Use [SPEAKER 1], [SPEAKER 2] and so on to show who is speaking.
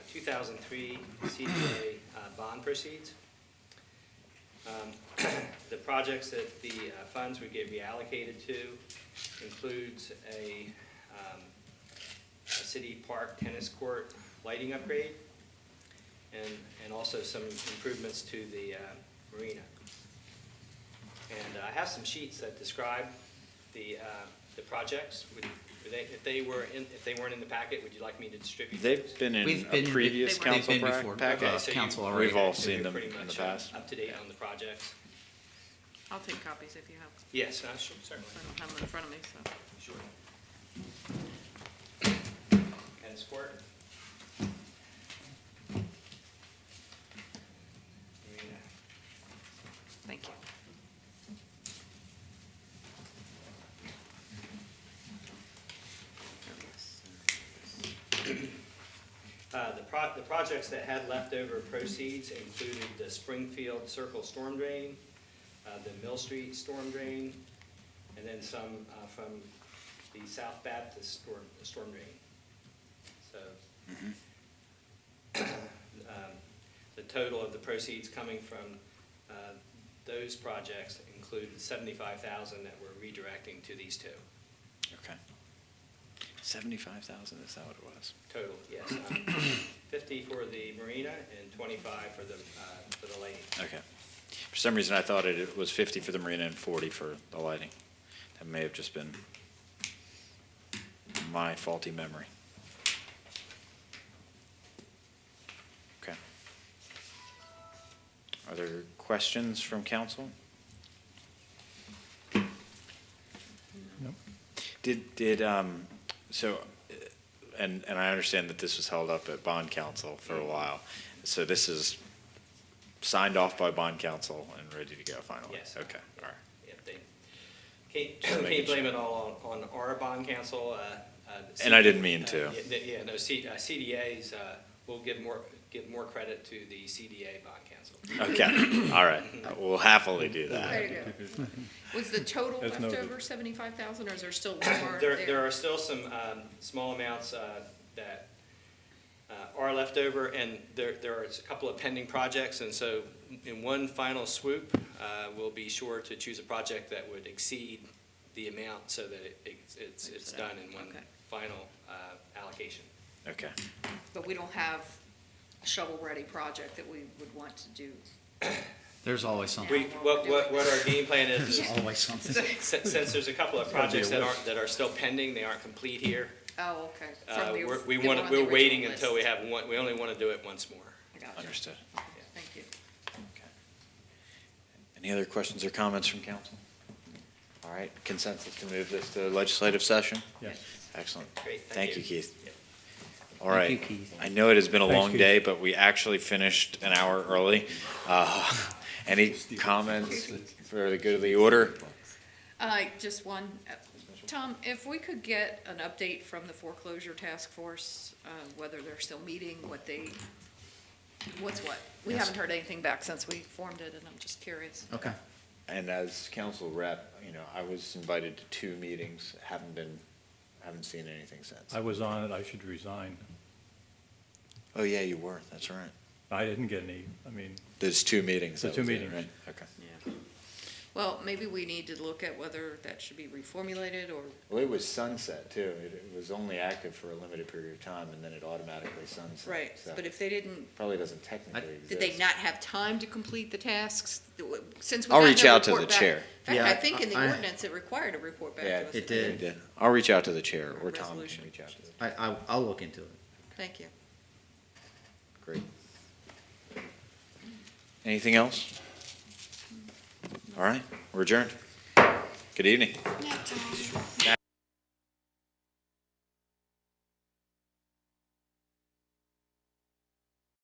[SPEAKER 1] 2003 CDA uh, bond proceeds. Um, The projects that the uh, funds would get reallocated to includes a um, a city park tennis court lighting upgrade, and, and also some improvements to the uh, marina. And uh, I have some sheets that describe the, uh, the projects. Would, would they, if they were in, if they weren't in the packet, would you like me to distribute those?
[SPEAKER 2] They've been in
[SPEAKER 3] We've
[SPEAKER 2] a
[SPEAKER 3] been-
[SPEAKER 2] previous
[SPEAKER 3] they've
[SPEAKER 2] council
[SPEAKER 3] been
[SPEAKER 2] pra-
[SPEAKER 3] before.
[SPEAKER 2] packet.
[SPEAKER 1] Okay,
[SPEAKER 3] uh,
[SPEAKER 1] so you-
[SPEAKER 3] council already.
[SPEAKER 2] We've all
[SPEAKER 1] so
[SPEAKER 2] seen
[SPEAKER 1] you're
[SPEAKER 2] them
[SPEAKER 1] pretty
[SPEAKER 2] in the
[SPEAKER 1] much
[SPEAKER 2] past.
[SPEAKER 1] Up to date on the projects?
[SPEAKER 4] I'll take copies if you have,
[SPEAKER 1] Yes, uh, sure, certainly,
[SPEAKER 4] I don't have them in front of me, so.
[SPEAKER 1] sure. Tennis court? Marina.
[SPEAKER 4] Thank you.
[SPEAKER 1] Uh, The pro, the projects that had leftover proceeds included the Springfield Circle Storm Drain, uh, the Mill Street Storm Drain, and then some uh, from the South Baptist Storm, Storm Drain. So, um, the total of the proceeds coming from uh, those projects included seventy-five thousand that we're redirecting to these two.
[SPEAKER 3] Uh-huh.
[SPEAKER 2] Okay. Seventy-five thousand, is that what it was?
[SPEAKER 1] Total, yes. um, Fifty for the marina and twenty-five for the, uh, for the lady.
[SPEAKER 2] Okay. For some reason, I thought it, it was fifty for the marina and forty for the lighting. That may have just been my faulty memory. Okay. Are there questions from council?
[SPEAKER 5] No.
[SPEAKER 2] Did, did, um, so, uh, and, and I understand that this was held up at bond council for a while. So this is signed off by bond council and ready to go finally?
[SPEAKER 1] Yes.
[SPEAKER 2] Oh, Okay, all right.
[SPEAKER 1] If they, can't,
[SPEAKER 2] Just making
[SPEAKER 1] can't blame it all on, on our bond council. uh, uh, the
[SPEAKER 2] And I
[SPEAKER 1] C-
[SPEAKER 2] didn't mean
[SPEAKER 1] uh,
[SPEAKER 2] to.
[SPEAKER 1] yeah, th- Yeah, no, C, uh, CDAs, uh, will give more, give more credit to the CDA bond council.
[SPEAKER 2] Okay, all right. We'll happily do that.
[SPEAKER 4] There you go. Was the total
[SPEAKER 5] As noted.
[SPEAKER 4] leftover seventy-five thousand, or is there still more
[SPEAKER 1] There,
[SPEAKER 4] there?
[SPEAKER 1] there are still some, um, small amounts, uh, that, uh, are left over, and there, there are a couple of pending projects, and so in one final swoop, uh, we'll be sure to choose a project that would exceed the amount so that it- it's, it's, it's
[SPEAKER 4] it out.
[SPEAKER 1] done in one
[SPEAKER 4] Okay.
[SPEAKER 1] final, uh, allocation.
[SPEAKER 2] Okay,
[SPEAKER 4] But we don't have a shovel-ready project that we would want to do.
[SPEAKER 3] There's always something.
[SPEAKER 1] We, what, what, what our game plan is, is
[SPEAKER 3] There's always something.
[SPEAKER 1] since since there's a couple of
[SPEAKER 5] gotta be a
[SPEAKER 1] projects that
[SPEAKER 5] list.
[SPEAKER 1] aren't, that are still pending, they aren't complete here,
[SPEAKER 4] Oh, okay. From
[SPEAKER 1] uh,
[SPEAKER 4] the-
[SPEAKER 1] we're, we
[SPEAKER 4] they
[SPEAKER 1] want,
[SPEAKER 4] on the
[SPEAKER 1] we're
[SPEAKER 4] original
[SPEAKER 1] waiting until we
[SPEAKER 4] list.
[SPEAKER 1] have one, we only want to do it once more.
[SPEAKER 4] I got you.
[SPEAKER 2] understood.
[SPEAKER 4] Thank you.
[SPEAKER 2] Okay. Any other questions or comments from council? All right, consensus to move this to legislative session?
[SPEAKER 5] Yes.
[SPEAKER 2] Excellent.
[SPEAKER 1] Great, thank
[SPEAKER 2] Thank you,
[SPEAKER 1] you.
[SPEAKER 2] Keith.
[SPEAKER 1] Yep.
[SPEAKER 2] All right.
[SPEAKER 3] Thank you, Keith.
[SPEAKER 2] I know it has been a
[SPEAKER 5] Thanks,
[SPEAKER 2] long
[SPEAKER 5] Keith.
[SPEAKER 2] day, but we actually finished an hour early. Uh, Any comments for the good of the order?
[SPEAKER 4] Uh, just one. Uh, Tom, if we could get an update from the foreclosure task force, uh, whether they're still meeting, what they, what's what? We haven't heard anything back since we formed it, and I'm just curious.
[SPEAKER 3] Okay.
[SPEAKER 2] And as council rep, you know, I was invited to two meetings, haven't been, haven't seen anything since.
[SPEAKER 5] I was on it, I should resign.
[SPEAKER 2] Oh, yeah, you were, that's right.
[SPEAKER 5] I didn't get any, I mean,
[SPEAKER 2] There's two meetings.
[SPEAKER 5] The
[SPEAKER 2] that
[SPEAKER 5] two
[SPEAKER 2] was it,
[SPEAKER 5] meetings.
[SPEAKER 2] right? Okay.
[SPEAKER 4] Well, maybe we need to look at whether that should be reformulated or,
[SPEAKER 2] Well, it was sunset too. It it was only active for a limited period of time and then it automatically sunset.
[SPEAKER 4] right,
[SPEAKER 2] so
[SPEAKER 4] but if they didn't,
[SPEAKER 2] Probably doesn't technically exist.
[SPEAKER 4] did they not have time to complete the tasks? Since we
[SPEAKER 2] I'll
[SPEAKER 4] got no
[SPEAKER 2] reach out to the
[SPEAKER 4] report back-
[SPEAKER 2] chair.
[SPEAKER 4] In
[SPEAKER 3] Yeah,
[SPEAKER 4] fact, I think in
[SPEAKER 3] I-
[SPEAKER 4] the ordinance it required a report back
[SPEAKER 2] Yeah,
[SPEAKER 4] to us.
[SPEAKER 3] it
[SPEAKER 2] They
[SPEAKER 3] did.
[SPEAKER 2] did. I'll reach out to the chair or Tom can
[SPEAKER 4] Resolution.
[SPEAKER 2] reach out to them.
[SPEAKER 3] I, I, I'll look into it.
[SPEAKER 4] Thank you.
[SPEAKER 2] Great. Anything else? All right, we're adjourned. Good evening.
[SPEAKER 4] Tom.